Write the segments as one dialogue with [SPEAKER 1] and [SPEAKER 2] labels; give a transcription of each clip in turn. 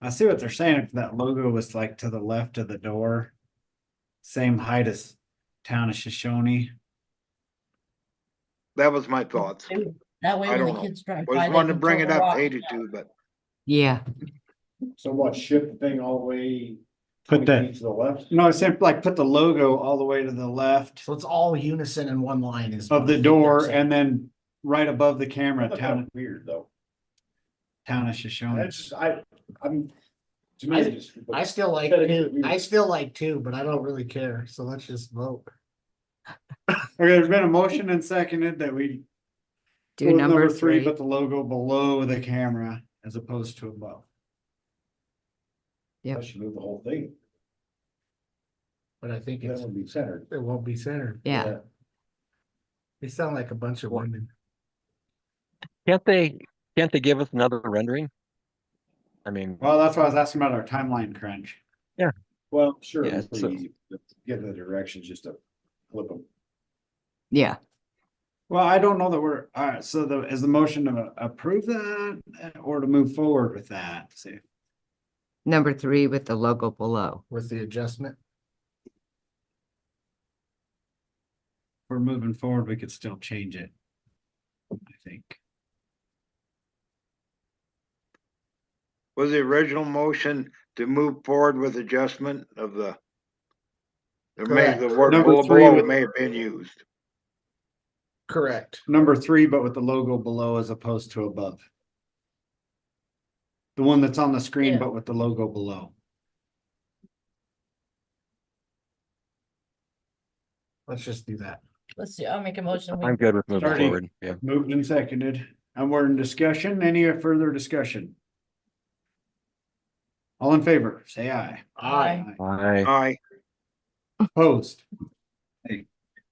[SPEAKER 1] I see what they're saying, if that logo was like to the left of the door. Same height as town of Shoshone,
[SPEAKER 2] That was my thoughts. I
[SPEAKER 3] That way
[SPEAKER 2] I
[SPEAKER 3] when
[SPEAKER 2] don't
[SPEAKER 3] the
[SPEAKER 2] know.
[SPEAKER 3] kids drive by.
[SPEAKER 2] just
[SPEAKER 3] they
[SPEAKER 2] wanted to
[SPEAKER 3] can
[SPEAKER 2] bring
[SPEAKER 3] throw
[SPEAKER 2] it
[SPEAKER 3] a
[SPEAKER 2] up,
[SPEAKER 3] rock.
[SPEAKER 2] hated to, but
[SPEAKER 4] Yeah,
[SPEAKER 5] So what, shift the thing all the way?
[SPEAKER 1] Put
[SPEAKER 5] 20
[SPEAKER 1] that-
[SPEAKER 5] feet To the left?
[SPEAKER 1] no, it's simply like put the logo all the way to the left
[SPEAKER 6] So it's all unison in one line is.
[SPEAKER 1] of
[SPEAKER 6] what
[SPEAKER 1] the
[SPEAKER 6] they're
[SPEAKER 1] door
[SPEAKER 6] saying.
[SPEAKER 1] and then. Right above the camera,
[SPEAKER 5] That's kind
[SPEAKER 1] town,
[SPEAKER 5] of weird though.
[SPEAKER 1] town of Shoshone,
[SPEAKER 5] That's just, I, I'm. To me, it just.
[SPEAKER 6] Um, I still like
[SPEAKER 5] Gotta get
[SPEAKER 6] two,
[SPEAKER 5] weird.
[SPEAKER 6] I still like two, but I don't really care, so let's just vote.
[SPEAKER 1] okay, there's been a motion and seconded that we. go
[SPEAKER 4] do
[SPEAKER 1] with
[SPEAKER 4] number three.
[SPEAKER 1] But the logo below the camera as opposed to above,
[SPEAKER 4] Yep.
[SPEAKER 5] I should move the whole thing.
[SPEAKER 6] But I think
[SPEAKER 5] That
[SPEAKER 6] it's,
[SPEAKER 5] would be centered.
[SPEAKER 6] it won't be centered.
[SPEAKER 4] Yeah,
[SPEAKER 6] They sound like a bunch of women.
[SPEAKER 7] Can't they, can't they give us another rendering? I mean,
[SPEAKER 1] well, that's why I was asking about our timeline crunch.
[SPEAKER 5] Well, sure,
[SPEAKER 7] Yeah,
[SPEAKER 5] it's
[SPEAKER 7] so-
[SPEAKER 5] pretty easy. Get the directions, just to flip them.
[SPEAKER 4] yeah,
[SPEAKER 1] Well, I don't know that we're, all right, so the, is the motion to approve that uh, or to move forward with that? See,
[SPEAKER 4] number three with the logo below.
[SPEAKER 6] with the adjustment.
[SPEAKER 1] we're moving forward, we could still change it. I think.
[SPEAKER 2] was the original motion to move forward with adjustment of the. There may, the word
[SPEAKER 1] Number
[SPEAKER 2] below
[SPEAKER 1] three
[SPEAKER 2] below
[SPEAKER 1] with-
[SPEAKER 2] may have been used.
[SPEAKER 6] Correct.
[SPEAKER 1] Number three, but with the logo below as opposed to above. The one that's on the screen,
[SPEAKER 3] Yeah.
[SPEAKER 1] but with the logo below.
[SPEAKER 6] Let's just do that.
[SPEAKER 3] Let's see, I'll make a motion. we-
[SPEAKER 7] I'm good with moving
[SPEAKER 1] Starting-
[SPEAKER 7] forward, yeah.
[SPEAKER 1] Moved and seconded, and we're in discussion. Any further discussion? All in favor, say aye.
[SPEAKER 3] Aye.
[SPEAKER 7] I,
[SPEAKER 2] Aye,
[SPEAKER 1] Opposed?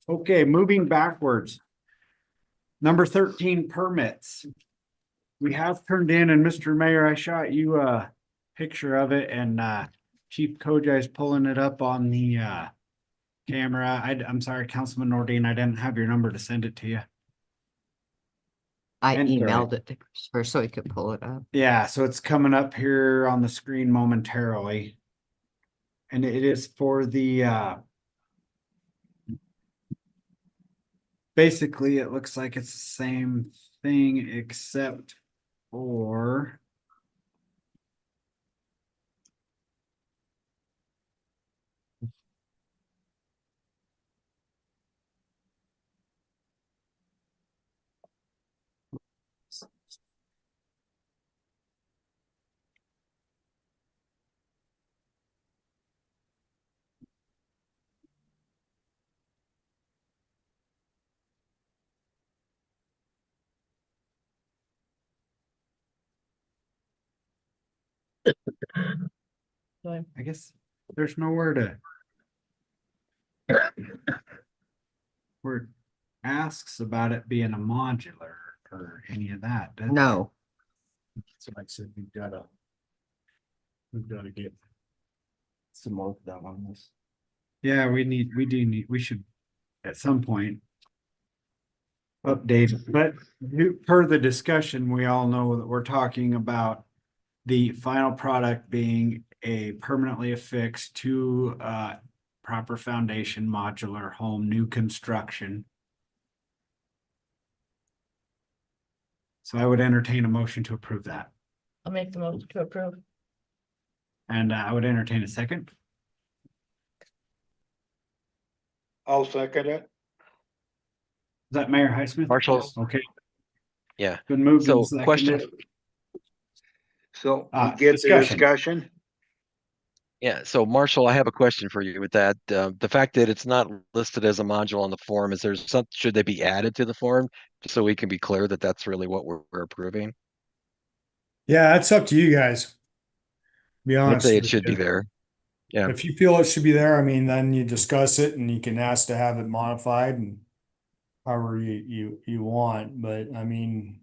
[SPEAKER 1] Okay, moving backwards. Number thirteen permits. We have turned in and Mr. Mayor, I shot you a picture of it and uh Chief Kojai is pulling it up on the uh camera. I am sorry, Councilman Nordine, I didn't have your number to send it to you.
[SPEAKER 4] I
[SPEAKER 1] And Gary.
[SPEAKER 4] emailed it to Christopher so he could pull it up.
[SPEAKER 1] Yeah, so it's coming up here on the screen momentarily. And it is for the uh basically it looks like it's the same thing except for
[SPEAKER 3] Sorry.
[SPEAKER 1] I guess there's nowhere to. Where it asks about it being a modular or any of that. does it?
[SPEAKER 4] No,
[SPEAKER 6] So like I said, we've gotta. We've gotta get. Some more of that on this.
[SPEAKER 1] Yeah, we need, we do need, we should at some point. Update, but you- per the discussion, we all know that we're talking about. The final product being a permanently affixed to uh proper foundation modular home, new construction. So I would entertain a motion to approve that,
[SPEAKER 3] I'll make the motion to approve.
[SPEAKER 1] and uh, I would entertain a second.
[SPEAKER 2] I'll second it.
[SPEAKER 1] Is that Mayor Highsmith?
[SPEAKER 7] Marshall.
[SPEAKER 1] Okay.
[SPEAKER 7] Yeah.
[SPEAKER 1] Been moved. and
[SPEAKER 7] So question,
[SPEAKER 1] seconded.
[SPEAKER 2] So we
[SPEAKER 1] Ah,
[SPEAKER 2] get the
[SPEAKER 1] discussion.
[SPEAKER 2] discussion.
[SPEAKER 7] yeah, so Marshall, I have a question for you with that. Uh, the fact that it's not listed as a module on the form, is there some, should they be added to the form? Just so we can be clear that that's really what we're we're approving.
[SPEAKER 8] Yeah, that's up to you guys. Be
[SPEAKER 7] I'd
[SPEAKER 8] honest.
[SPEAKER 7] say it
[SPEAKER 8] with
[SPEAKER 7] should be
[SPEAKER 8] you.
[SPEAKER 7] there. yeah.
[SPEAKER 8] If you feel it should be there, I mean, then you discuss it and you can ask to have it modified and however you, you, you want, but I mean,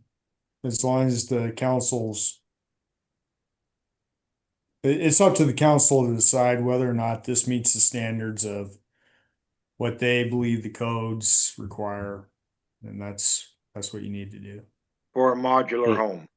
[SPEAKER 8] as long as the council's it, it's up to the council to decide whether or not this meets the standards of what they believe the codes require. And that's, that's what you need to do.
[SPEAKER 2] For a modular
[SPEAKER 7] Hmm.
[SPEAKER 2] home.